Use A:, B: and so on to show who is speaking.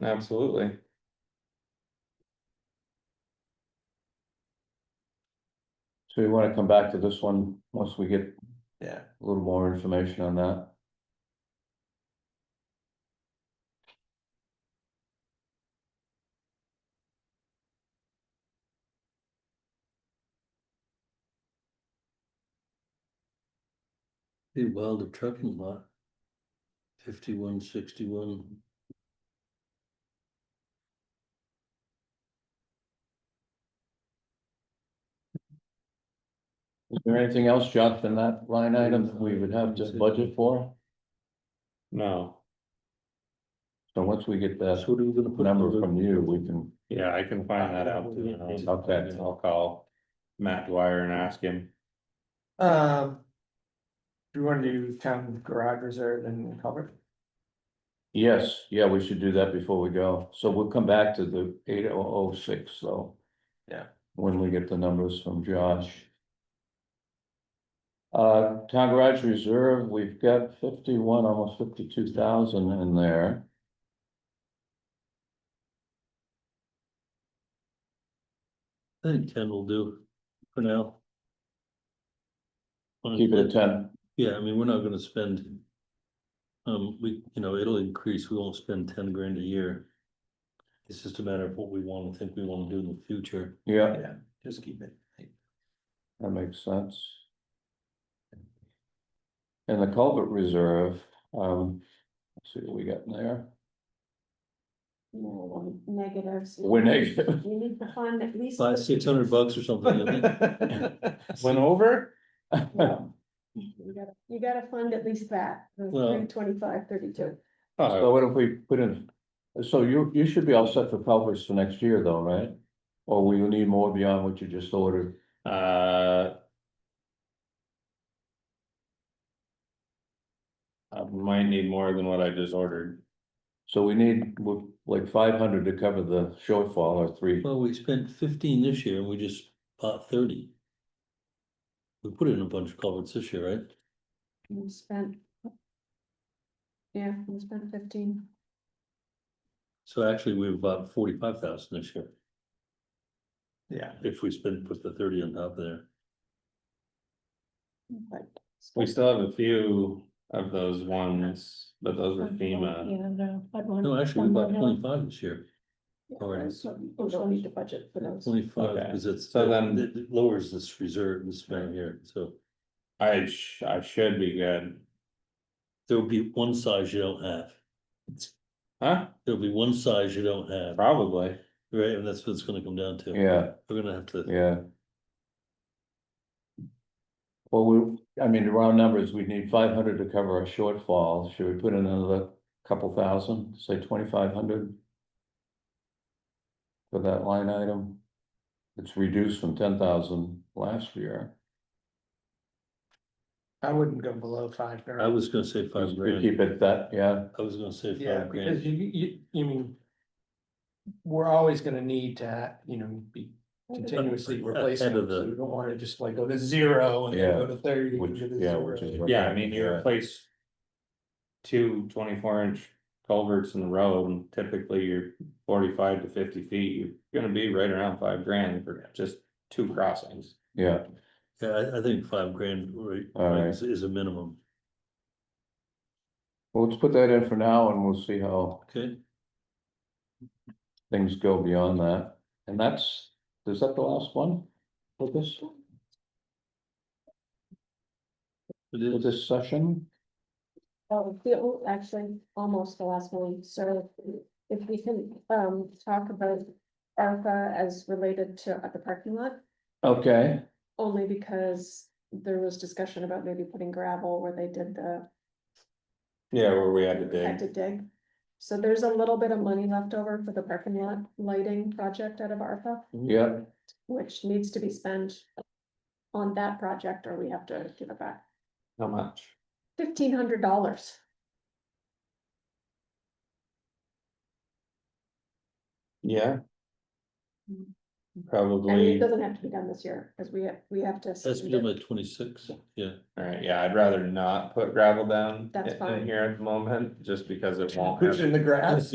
A: Absolutely.
B: So we wanna come back to this one, once we get a
A: Yeah.
B: little more information on that.
C: The Wilder trucking lot. Fifty-one sixty-one.
B: Is there anything else, Josh, in that line item that we would have to budget for?
A: No,
B: So once we get
C: That's
B: that
C: what we were gonna put.
B: number
C: under-
B: from you, we can,
A: yeah, I can find that out. too, and I'll-
B: Okay.
A: I'll call Matt Dwyer and ask him.
D: Um. Do you want to do town garage reserve and cover?
B: yes, yeah, we should do that before we go. So we'll come back to the eight oh oh six, so.
D: Yeah.
B: When we get the numbers from Josh. Uh, town garage reserve, we've got fifty-one, almost fifty-two thousand in there.
C: I think ten will do for now.
B: Keep it at ten.
C: Yeah, I mean, we're not gonna spend. Um, we, you know, it'll increase, we won't spend ten grand a year. It's just a matter of what we want, to think we wanna do in the future.
B: Yeah,
D: Just keep it.
B: that makes sense. And the culvert reserve, um, let's see what we got in there.
E: No, we're negatives.
B: We're negative.
E: We need to fund at least.
C: Five, six hundred bucks or something. I think.
A: Went over?
E: No. You gotta- you gotta fund at least that,
C: Well-
E: three twenty-five, thirty-two.
B: So what if we put in, so you, you should be all set for culverts for next year though, right? Or will you need more beyond what you just ordered?
A: Uh. I might need more than what I just ordered.
B: So we need w- like five hundred to cover the shortfall or three.
C: Well, we spent fifteen this year and we just bought thirty. We put in a bunch of culverts this year, right?
E: We spent. Yeah, we spent fifteen.
C: So actually, we've bought forty-five thousand this year,
D: Yeah,
C: if we spend, put the thirty on top of there.
E: but-
A: We still have a few of those ones, but those were FEMA.
E: Yeah, no, I'd want.
C: No, actually, we bought
E: I'd want-
C: twenty-five this year, already.
E: So We don't need to budget for those.
C: twenty-five,
A: Okay.
C: because it's,
A: So then-
C: it it lowers this reserve, this amount here, so.
A: I sh- I should be good,
C: There'll be one size you don't have,
A: huh?
C: there'll be one size you don't have,
A: Probably.
C: right, and that's what it's gonna come down to.
B: Yeah,
C: We're gonna have to,
B: yeah. Well, we, I mean, the round numbers, we need five hundred to cover our shortfall. Should we put in another couple thousand, say twenty-five hundred? For that line item? It's reduced from ten thousand last year.
D: I wouldn't go below five
C: I
D: grand.
C: was gonna say five
B: We
C: grand,
B: Keep it that, yeah,
C: I was gonna say
D: Yeah,
C: five
D: because
C: grand,
D: you, you, you mean. We're always gonna need to, you know, be continuously replacing
C: Ahead of
D: them,
C: the-
D: so we don't wanna just like go to zero and then
B: Yeah,
D: go to thirty. and
B: which,
D: go to
B: yeah,
D: zero.
B: which is. what-
A: Yeah, I mean, you replace. Two 24 inch culverts in the road and typically you're forty-five to fifty feet, you're gonna be right around five grand for just two crossings.
B: Yeah,
C: yeah, I, I think five grand, right,
B: All right.
C: is, is a minimum,
B: well, let's put that in for now and we'll see how
C: okay?
B: things go beyond that. And that's, is that the last one? For this,
C: It
B: for
C: is.
B: this session?
E: Oh, the- oh, actually, almost the last one, so if we can, um, talk about ARPA as related to uh, the parking lot.
B: Okay,
E: Only because there was discussion about maybe putting gravel where they did the.
A: Yeah, where we had to
E: Had to
A: dig.
E: dig. So there's a little bit of money left over for the parking lot lighting project out of ARPA,
B: yeah,
E: which needs to be spent. On that project, or we have to give it back
A: How much?
E: fifteen hundred dollars.
A: Yeah.
E: Hmm. I mean, it
A: Probably,
E: doesn't have to be done this year, because we have, we have to.
C: That's
E: submit
C: been
E: it.
C: like twenty-six, yeah,
A: alright, yeah, I'd rather not put gravel down
E: That's
A: in- in
E: fine.
A: here at the moment, just because it won't.
D: Push
A: have-
D: in the grass.